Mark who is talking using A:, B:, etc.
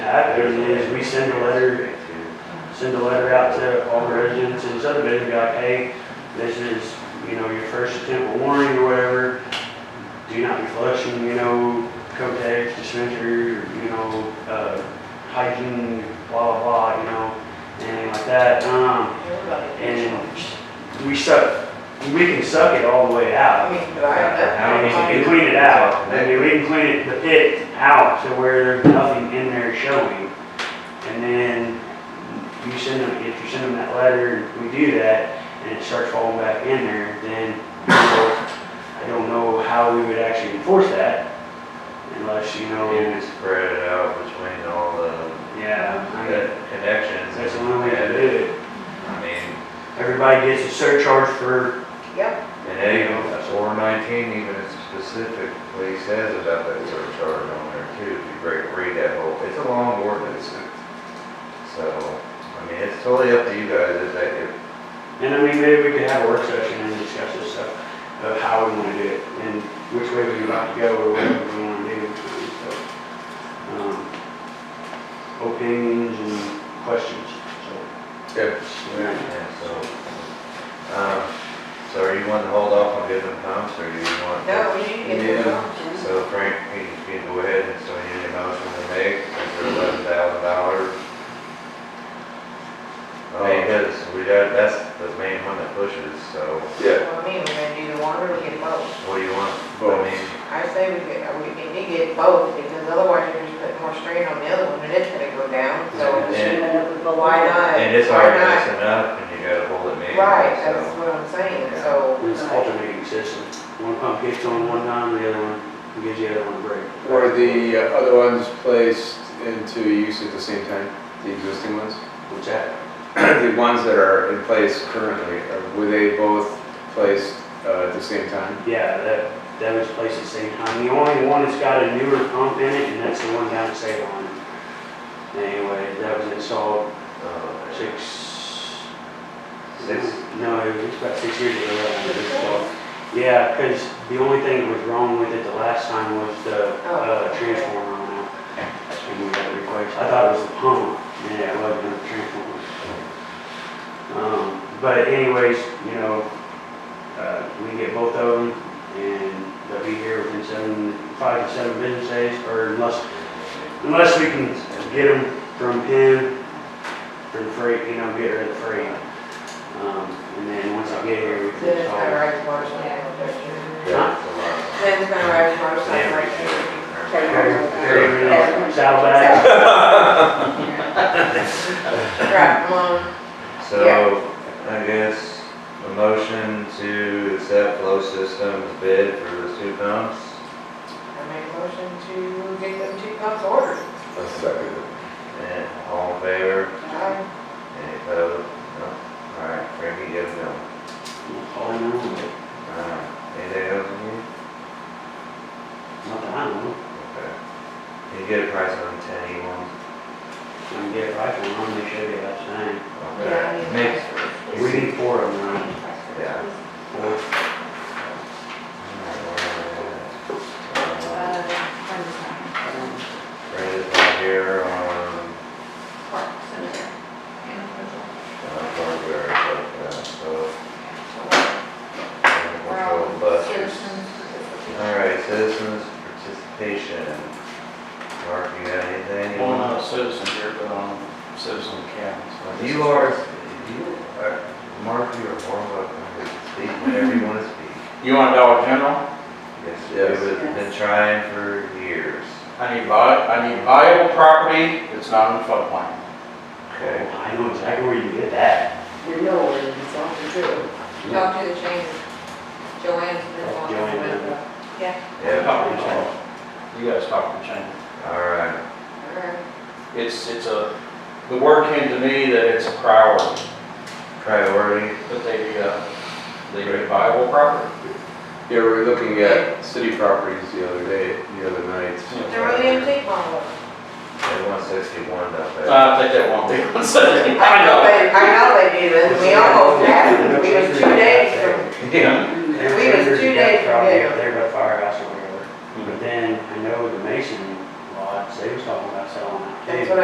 A: That is, we send a letter, send a letter out to all the residents in Southern be like, hey, this is, you know, your first attempt at warning or whatever. Do not be flushing, you know, Kotex, dispenser, you know, uh, hygiene, blah, blah, blah, you know, anything like that. Um, and we suck, we can suck it all the way out.
B: I mean, but I,
A: I mean, we
B: that,
A: can clean it out, I mean, we can clean it, the pit out to where there's nothing in there showing. And then you send them, if you send them that letter, we do that, and it starts falling back in there, then, you know, I don't know how we would actually enforce that unless, you know,
C: You could spread it out between all the
A: yeah, I mean,
C: the connections.
A: that's the only way to
C: and-
A: do it.
C: I mean,
A: Everybody gets a surcharge for,
B: yep,
C: and A four nineteen even specifically says about that surcharge on there too, if you break, read that whole, it's a long ordinance. it's- So, I mean, it's totally up to you guys if that, if
A: and I mean, maybe we could have a work session and discuss this stuff of how we wanna do it and which way we would like to go or what we wanna do. So, um, Opinions and questions, so.
C: Good.
A: Yeah.
C: Yeah, so, um, so are you wanting to hold off on giving them pumps, or do you want?
B: no, we need to get the
C: Yeah.
B: options.
C: So Frank, you can go ahead, and so you need a motion to make, for eleven thousand dollars. I mean, because we got, that's the main one that pushes, so
D: Yeah,
B: Well, I mean, we're gonna do the one, or we get both.
C: what do you want?
D: Both.
C: I mean,
B: I say we get, we need to get both, because otherwise you're just putting more strain on the other one, and it's gonna go down, so. But why not?
C: And it's
B: Why
C: already
B: not?
C: messing up, and you gotta hold it maybe,
B: Right, that's
C: so.
B: what I'm saying,
C: Yeah.
B: so.
A: It's alternating system, one pump gets on one time, the other one gives the other one a break.
D: were the uh, other ones placed into use at the same time, the existing ones?
A: What's that?
D: The ones that are in place currently, uh, were they both placed uh, at the same time?
A: Yeah, that, that was placed at the same time, the only one that's got a newer pump in it, and that's the one down at Salem. Anyway, that was installed
C: uh,
A: six.
C: Six?
A: No, it was about six years ago. that one was installed. Yeah, because the only thing that was wrong with it the last time was the uh,
B: Oh.
A: transformer on it. And we got it replaced. I thought it was the pump, yeah, it wasn't the transformer. Um, But anyways, you know, uh, we get both of them and they'll be here within seven, five to seven business days or unless Unless we can get them from him, for the freight, you know, get rid of the freight. Um, and then once I get here, we
B: Then
A: can
B: it's gonna
A: solve.
B: ride his motorcycle, don't you?
C: Yeah, it's a lot.
B: Then it's gonna ride his
C: Yeah, we
B: motorcycle.
A: Carry
C: should.
A: Saddlebags.
B: Right, well,
C: So, I guess, a motion to accept Flow Systems bid for the two pumps?
B: I make a motion to get them two pumps ordered.
D: A second.
C: And all in favor?
B: I
C: Any opposed? No? All right, Frankie, yes, no.
A: All in on, but
C: All right, anything else you need?
A: not that I know. of.
C: Okay. Can you get a price on ten E ones?
A: I can get a rifle on, they should be about the same.
B: Yeah, I
C: Okay.
B: need
C: Mix.
A: We need four of them, right?
C: Yeah.
A: Four.
C: Um, Brenda's not here on, on hardware, but, uh, so. uh, Control buses. All right, citizens participation. Mark, you got anything?
E: Well,
A: uh,
E: not a citizen here, but on citizen account. so I guess
C: You
E: it's-
C: are, you are, Mark, you are more welcome to speak whenever you want to speak.
E: You want Dollar General?
C: Yes,
D: Yes.
C: we've been trying for years.
E: I need buy, I need viable property that's not in floodplain.
C: Okay.
A: I know exactly where you can get that.
B: You know where it's all to do. Talk to the chain, Joanne's been on.
A: Joanne.
C: Yeah,
E: Talk to the chamber. You guys talk to the chamber.
C: all right,
B: Alright.
E: It's, it's a, the word came to me that it's a priority,
C: priority,
E: that they, uh, they need viable property.
D: Yeah, we were looking at city properties the other day, the other night.
B: They're really antique models.
C: they want sixty-one up there.
E: Uh, I think that won't be on Sunday. I know.
B: they, I know they do, and we almost had it, we was two days from,
C: Yeah,
B: We was two days from
A: Probably
B: there.
A: up there by the firehouse or whatever. But then I know the Mason lots, they was talking about selling that
B: That's what